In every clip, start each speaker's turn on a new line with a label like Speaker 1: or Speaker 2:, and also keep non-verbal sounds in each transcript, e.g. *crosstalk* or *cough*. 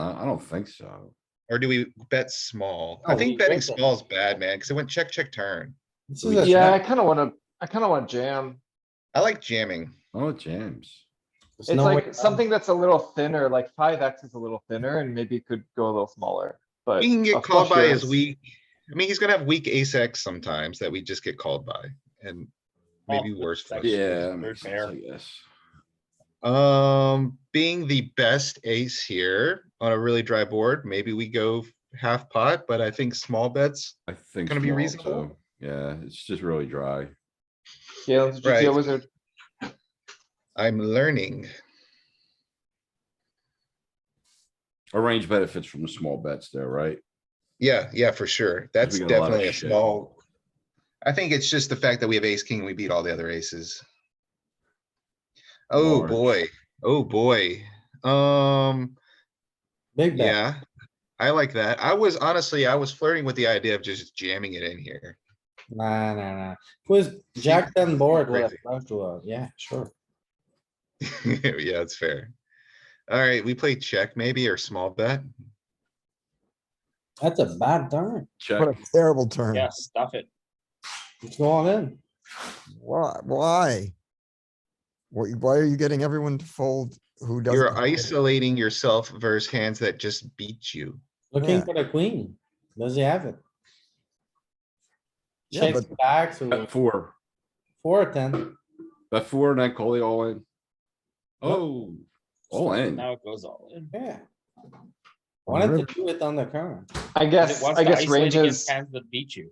Speaker 1: I don't think so.
Speaker 2: Or do we bet small?
Speaker 3: Oh,
Speaker 2: I
Speaker 3: we
Speaker 2: think betting
Speaker 3: bet that.
Speaker 2: small is bad, man, because it went check, check, turn.
Speaker 3: This is a
Speaker 4: Yeah, I
Speaker 3: check.
Speaker 4: kinda wanna, I kinda want jam.
Speaker 2: I like jamming.
Speaker 1: Oh, jams.
Speaker 3: There's
Speaker 4: It's
Speaker 3: no way
Speaker 4: like
Speaker 3: around.
Speaker 4: something that's a little thinner, like five X is a little thinner and maybe could go a little smaller, but.
Speaker 2: We can
Speaker 4: a
Speaker 2: get called
Speaker 4: flush
Speaker 2: by his
Speaker 4: is-
Speaker 2: weak. I mean, he's gonna have weak ace X sometimes that we just get called by and maybe
Speaker 3: Off
Speaker 2: worse.
Speaker 3: the
Speaker 2: flush.
Speaker 3: second.
Speaker 1: Yeah,
Speaker 3: third
Speaker 1: makes sense,
Speaker 3: pair.
Speaker 1: I guess.
Speaker 2: Um, being the best ace here on a really dry board, maybe we go half pot, but I think small bets.
Speaker 1: I think.
Speaker 2: Gonna be
Speaker 1: small,
Speaker 2: reasonable?
Speaker 1: too. Yeah, it's just really dry.
Speaker 4: Galen's GTO
Speaker 2: Right.
Speaker 4: wizard,
Speaker 2: I'm learning.
Speaker 1: A range benefits from the small bets there, right?
Speaker 2: Yeah, yeah, for sure. That's
Speaker 1: we got a lot of
Speaker 2: definitely a
Speaker 1: shit.
Speaker 2: small. I think it's just the fact that we have ace king, and we beat all the other aces. Oh,
Speaker 1: Large.
Speaker 2: boy. Oh, boy. Um,
Speaker 3: Big bet.
Speaker 2: yeah. I like that. I was honestly, I was flirting with the idea of just jamming it in here. *laughs*
Speaker 3: Nah, nah, nah. Quiz, jack ten board with a
Speaker 2: Crazy.
Speaker 3: flush draw. Yeah, sure.
Speaker 2: Yeah, that's fair. Alright, we play check maybe or small bet.
Speaker 3: That's a bad turn.
Speaker 1: Check.
Speaker 5: What a terrible turn.
Speaker 6: Yeah, stuff it.
Speaker 3: It's going in.
Speaker 5: Why? Why? Why why are you getting everyone to fold who doesn't?
Speaker 2: You're
Speaker 5: have it?
Speaker 2: isolating yourself versus hands that just beat you.
Speaker 3: Looking
Speaker 5: Yeah.
Speaker 3: for the queen. Does he have it?
Speaker 5: Yeah,
Speaker 3: Check
Speaker 5: but-
Speaker 3: back to
Speaker 1: Bet four,
Speaker 3: four or ten.
Speaker 1: bet four and then call the all in. Oh, all in.
Speaker 6: Now it goes all in.
Speaker 3: Yeah. Wanted
Speaker 5: River.
Speaker 3: to do it on the turn.
Speaker 4: I
Speaker 6: But it
Speaker 4: guess,
Speaker 6: wants
Speaker 4: I
Speaker 6: to
Speaker 4: guess
Speaker 6: isolate against
Speaker 4: ranges,
Speaker 6: Hands that beat you.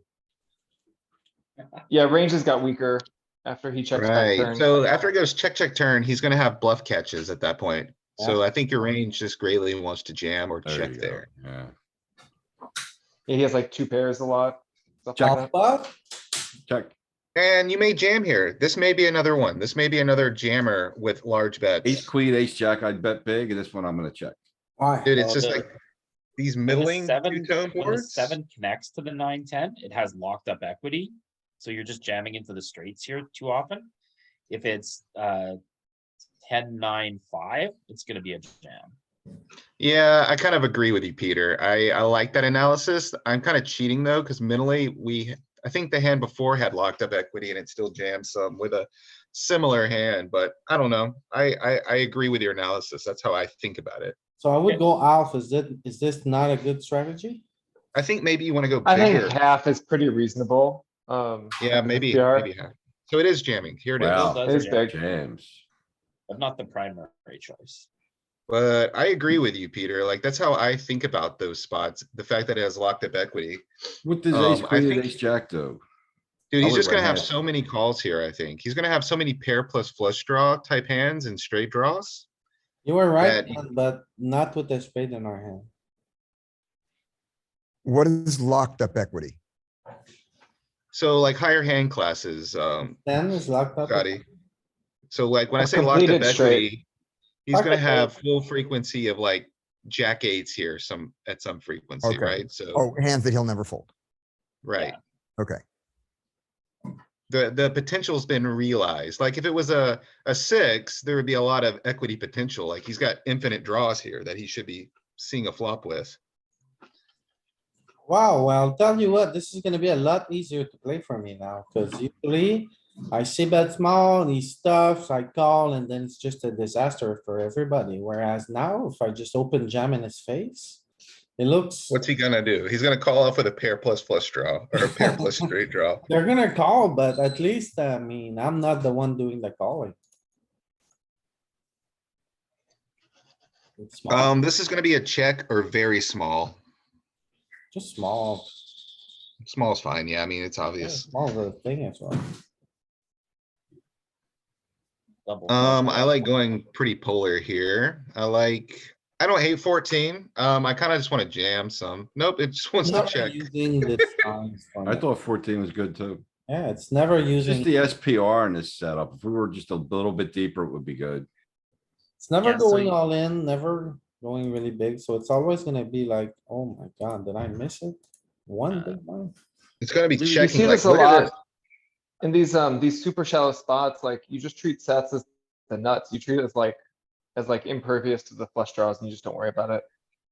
Speaker 4: yeah, ranges got weaker after he checked back
Speaker 2: Right,
Speaker 4: turn.
Speaker 2: so after it goes check, check, turn, he's gonna have bluff catches at that point. So I think your range just greatly wants to jam or
Speaker 1: There
Speaker 2: check
Speaker 1: you go,
Speaker 2: there.
Speaker 1: Yeah.
Speaker 4: Yeah, he has like two pairs a lot. stuff like
Speaker 1: Jack-
Speaker 4: that.
Speaker 3: But
Speaker 1: Check.
Speaker 2: And you may jam here. This may be another one. This may be another jammer with large
Speaker 1: Ace,
Speaker 2: bets.
Speaker 1: queen, ace, jack, I'd bet big, and this one I'm gonna check.
Speaker 3: why?
Speaker 2: Dude, it's
Speaker 6: Oh,
Speaker 2: just
Speaker 6: the-
Speaker 2: like these
Speaker 6: When the
Speaker 2: middling
Speaker 6: seven-
Speaker 2: two-tone
Speaker 6: when the
Speaker 2: boards.
Speaker 6: Seven connects to the nine, ten, it has locked up equity. So you're just jamming into the straights here too often. If it's, uh, ten, nine, five, it's gonna be a jam.
Speaker 2: Yeah, I kind of agree with you, Peter. I, I like that analysis. I'm kind of cheating though, because mentally we, I think the hand before had locked up equity and it still jammed some with a similar hand, but I don't know. I, I, I agree with your analysis. That's how I think about it.
Speaker 3: So I would go off. Is that, is this not a good strategy?
Speaker 2: I think maybe you want to go
Speaker 4: I think
Speaker 2: bigger.
Speaker 4: half is pretty reasonable, um,
Speaker 2: Yeah, maybe,
Speaker 4: PR.
Speaker 2: maybe. half. So it is jamming. Here it
Speaker 1: Wow.
Speaker 2: is.
Speaker 6: Still does
Speaker 4: it is
Speaker 6: jam,
Speaker 4: big.
Speaker 1: Jams.
Speaker 6: But not the primary choice.
Speaker 2: But I agree with you, Peter. Like, that's how I think about those spots. The fact that it has locked up equity.
Speaker 1: What does
Speaker 2: Um,
Speaker 1: ace,
Speaker 2: I
Speaker 1: queen, and
Speaker 2: think-
Speaker 1: ace, jack do?
Speaker 2: Dude,
Speaker 1: I
Speaker 2: he's
Speaker 1: would
Speaker 2: just gonna have
Speaker 1: recommend-
Speaker 2: so many calls here, I think. He's gonna have so many pair plus flush draw type hands and straight draws.
Speaker 3: You were right,
Speaker 2: That-
Speaker 3: man, but not with the spade in our hand.
Speaker 5: What is locked up equity?
Speaker 2: So like higher hand classes, um,
Speaker 3: Ten is locked up.
Speaker 2: Scotty. So like when I
Speaker 4: A
Speaker 2: say locked up
Speaker 4: completed straight.
Speaker 2: equity, he's
Speaker 4: Locked
Speaker 2: gonna
Speaker 4: up
Speaker 2: have full frequency of like jack eights here some, at some frequency,
Speaker 5: Okay.
Speaker 2: right? So,
Speaker 5: Oh, hands that he'll never fold.
Speaker 2: right.
Speaker 5: Okay.
Speaker 2: The, the potential's been realized. Like if it was a, a six, there would be a lot of equity potential. Like he's got infinite draws here that he should be seeing a flop with.
Speaker 3: Wow, well, I'll tell you what, this is gonna be a lot easier to play for me now, cuz usually I see bet small, he stuffs, I call, and then it's just a disaster for everybody, whereas now if I just open jam in his face, it looks,
Speaker 2: What's he gonna do? He's gonna call off with a pair plus flush draw or a pair
Speaker 4: *laughs*
Speaker 2: plus straight draw.
Speaker 3: they're gonna call, but at least, I mean, I'm not the one doing the calling. It's small,
Speaker 2: Um, this is gonna be a check or very small.
Speaker 3: just small,
Speaker 2: Small's fine. Yeah, I mean, it's obvious.
Speaker 3: small little thing as well.
Speaker 6: Double.
Speaker 2: Um, I like going pretty polar here. I like, I don't hate fourteen. Um, I kinda just wanna jam some. Nope, it just wants to
Speaker 3: Never
Speaker 2: check.
Speaker 3: using this line from
Speaker 1: I
Speaker 2: Um,
Speaker 3: it.
Speaker 1: thought fourteen was good too.
Speaker 3: Yeah, it's never
Speaker 1: It's Just
Speaker 3: using.
Speaker 1: the SPR in this setup. If we were just a little bit deeper, it would be good.
Speaker 3: It's never
Speaker 6: Yeah, so
Speaker 3: going
Speaker 6: you-
Speaker 3: all in, never going really big, so it's always gonna be like, oh my god, did I miss it?
Speaker 6: Uh,
Speaker 3: One big one.
Speaker 2: It's gonna be
Speaker 4: You- You see
Speaker 2: checking. like,
Speaker 4: this a
Speaker 2: look at
Speaker 4: lot
Speaker 2: this.
Speaker 4: in these, um, these super shallow spots, like you just treat sets as the nuts, you treat it as like, as like impervious to the flush draws and you just don't worry about it.